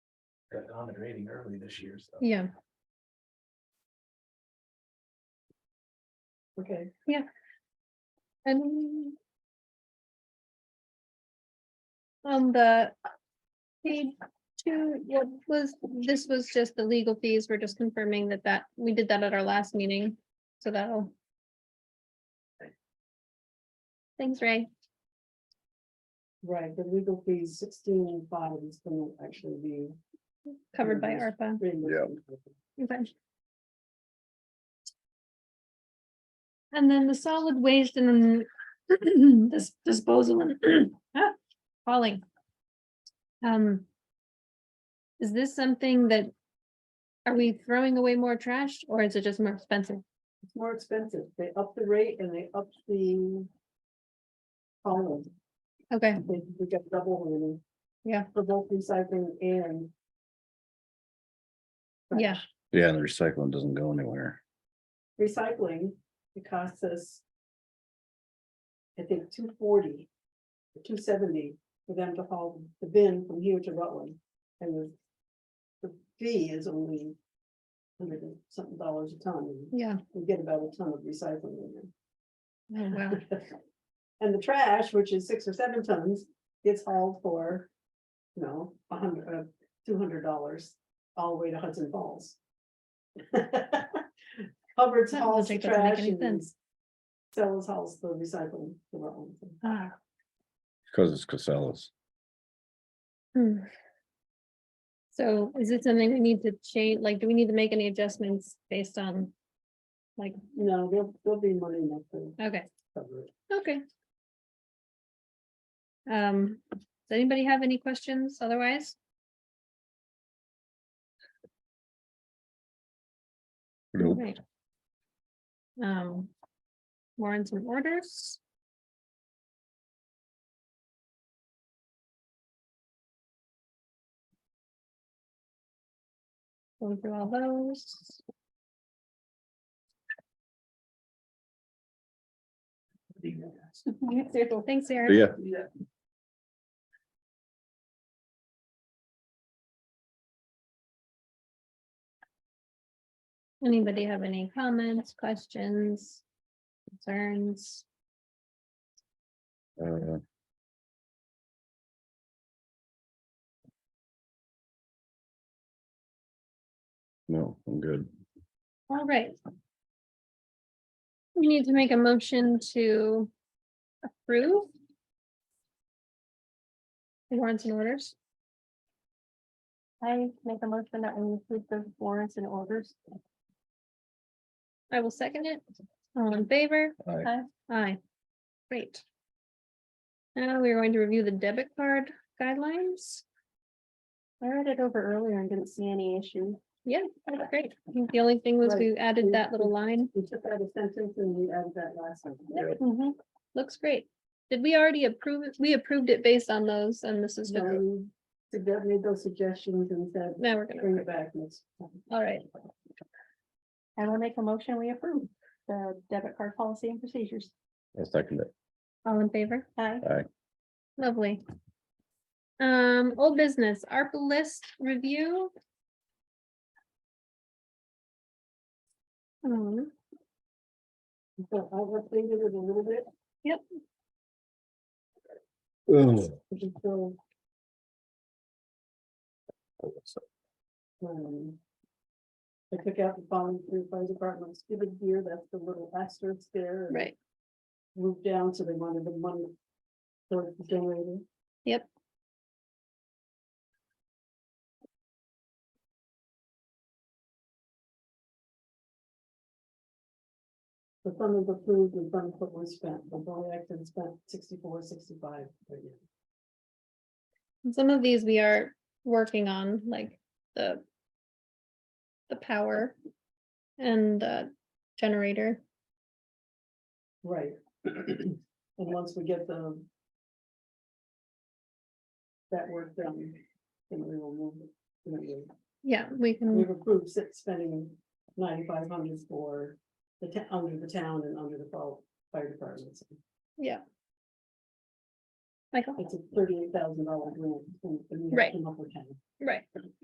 Got on the grading early this year, so. Yeah, Okay, and. On Um, the. Page two, what was, this was just the legal fees, we're just confirming that that, we did that at our last meeting, so that'll. Thanks, Ray. right, the legal fees sixteen five is gonna actually be. covered by Yes. ARPA. reimbursed. Okay. And then the solid waste and then this disposal and ah, falling. Um. Is this something that? Are we throwing away more trash or is it just more expensive? It's more expensive, they up the rate and they up the. Column, Okay, they, we got double really. Yeah. For both recycling and. yeah, trash. Yeah, the recycling doesn't go anywhere. Recycling, it costs us. I think two forty, two seventy for them to haul the bin from here to Rutland. And the. The fee is only. Hundred and something dollars a ton, and yeah. we get about a ton of recycling in there. Oh, wow. And the trash, which is six or seven tons, gets hauled for, you know, a hundred, uh, two hundred dollars all the way to Hudson Falls. Hubbard's That hauls the logic doesn't make trash any and sense. Sellers hauls the recycling. the wrong thing. Ah, Cause it's Casellas. hmm. So is it something we need to change? Like, do we need to make any adjustments based on? Like, No, there'll, there'll be money enough to okay. cover it. Okay. Um, does anybody have any questions otherwise? Nope. Right. Um, warrants and orders. Going through all those. Thanks, Erin. Yeah, Yeah. Anybody have any comments, questions, concerns? uh, No, I'm good. All right. We need to make a motion to approve. the Warrants and orders. I make a motion that we approve the warrants and orders. I will second it. All in favor? Aye. Aye. Great. Now we're going to review the debit card guidelines. I read it over earlier and didn't see any issue. Yeah, that's great. I think The only thing was we added that little line. We took out a sentence and we added that last one. Mm-hmm. Looks great. Did we already approve it? We approved it based on those and this is, So just- we suggested- made those suggestions and said, now we're gonna, bring it back next time. all right, I will make a motion, we approve the debit card policy and procedures. I second it. all in favor? Aye. Aye. Lovely. Um, old business, ARPA list review. Um, So I updated it a little bit. Oh, which is still, um, I took out the following three fire departments, given here, that's the little asterisk there. and right, Moved down, so they wanted the money for the generator. Yep. The fund was approved and fund put was spent, the only acted spent sixty-four, sixty-five. right now. some of these we are working on, like the. The power. And the generator, Right. And once we get the. That work done, then we will move. you know, we- yeah, we can, We've approved six spending ninety-five hundred for the town, under the town and under the fol- fire departments. yeah. Michael, It's a thirty-eight thousand dollar grant. and- and we Right. came up with that. right.